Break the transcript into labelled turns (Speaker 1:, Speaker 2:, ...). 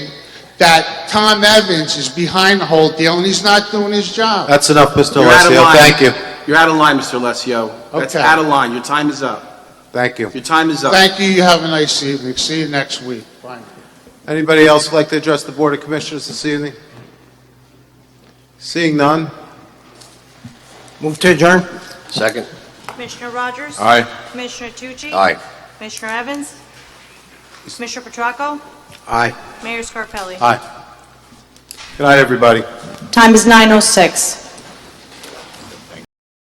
Speaker 1: that Tom Evans is behind the whole deal and he's not doing his job.
Speaker 2: That's enough, Mr.
Speaker 3: You're out of
Speaker 2: Alessio.
Speaker 3: line.
Speaker 2: Thank you.
Speaker 3: You're out of line, Mr. Alessio. That's
Speaker 1: Okay.
Speaker 3: out of line. Your time is up.
Speaker 2: Thank you.
Speaker 3: Your time is up.
Speaker 1: Thank you, you have a nice evening, see you next week. Bye.
Speaker 2: Anybody else like to address the Board of Commissioners this evening? Seeing none?
Speaker 4: Move to adjourn.
Speaker 5: Second.
Speaker 6: Commissioner Rogers?
Speaker 5: Aye.
Speaker 6: Commissioner Tucci?
Speaker 5: Aye.
Speaker 6: Commissioner Evans? Commissioner Petracco?
Speaker 4: Aye.
Speaker 6: Mayor Scarpelli?
Speaker 2: Aye. Good night, everybody.
Speaker 7: Time is 9:06.